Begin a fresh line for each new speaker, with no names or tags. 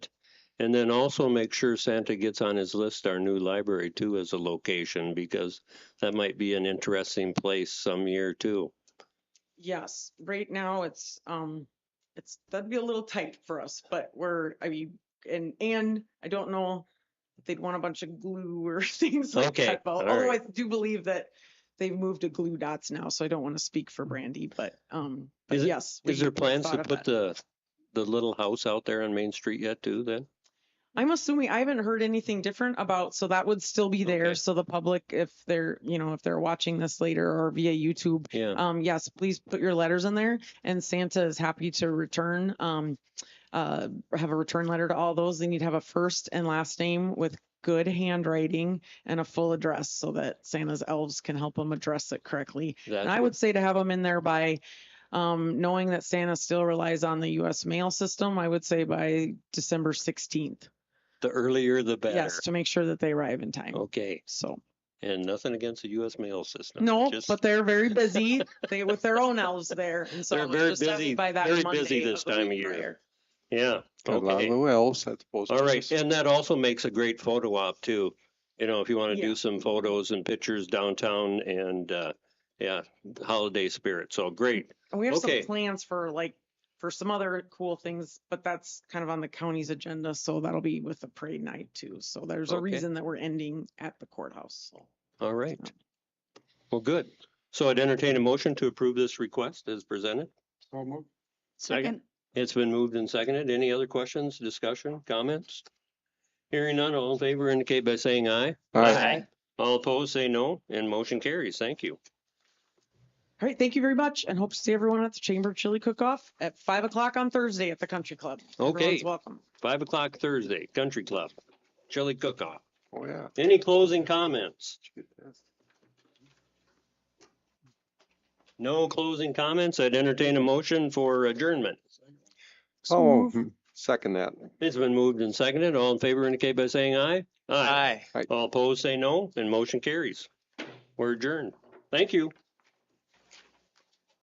And then also make sure Santa gets on his list our new library too as a location because that might be an interesting place some year too.
Yes, right now it's, um, it's, that'd be a little tight for us, but we're, I mean, and, and I don't know if they'd want a bunch of glue or things like
Okay,
that. but
all
Although I
right.
do believe that they've moved to glue dots now, so I don't want to speak for Brandy, but, um, but
Is it-
yes.
Is there
we
plans
thought
to
of
put
that.
the, the little house out there on Main Street yet too then?
I'm assuming, I haven't heard anything different about, so that would still be
Okay.
there. So the public, if they're, you know, if they're watching this later or via YouTube,
Yeah,
um, yes, please put your letters in there and Santa is happy to return, um, uh, have a return letter to all those. They need to have a first and last name with good handwriting and a full address so that Santa's elves can help them address it correctly. And I
that's,
would say to have them in there by, um, knowing that Santa still relies on the US mail system, I would say by December sixteenth.
the earlier the better. Oh.
Yes, to make sure that they arrive in time.
Okay,
So,
and nothing against the US mail system.
no,
just-
but they're very busy. They, with their own elves there. And so
They're
it
very
just has to be
busy-
by that
very
Monday
busy this
of the
time
week
of year.
prior.
Yeah.
A lot
okay.
of the wells, I suppose.
All right, and that also makes a great photo op too. You know, if you want to
Yeah.
do some photos and pictures downtown and, uh, yeah, holiday spirit. So great.
And We have
Okay.
some plans for like, for some other cool things, but that's kind of on the county's agenda. So that'll be with the parade night too. So there's a
Okay.
reason that we're ending at the courthouse. So
All right. Well, good. So I'd entertain a motion to approve this request as presented.
Second,
It's been moved and seconded. Any other questions, discussion, comments? Hearing none, all in favor indicate by saying aye.
Aye.
All opposed, say no, and motion carries. Thank you.
All right, thank you very much and hope to see everyone at the Chamber Chili Cook-Off at five o'clock on Thursday at the Country Club.
Okay.
Everyone's welcome.
Five o'clock Thursday, Country Club, chili cook-off.
Oh, yeah.
Any closing comments? No closing comments. I'd entertain a motion for adjournment.
Oh, hmm, second that.
It's been moved and seconded. All in favor indicate by saying aye.
Aye.
All opposed, say no, and motion carries. We're adjourned. Thank you.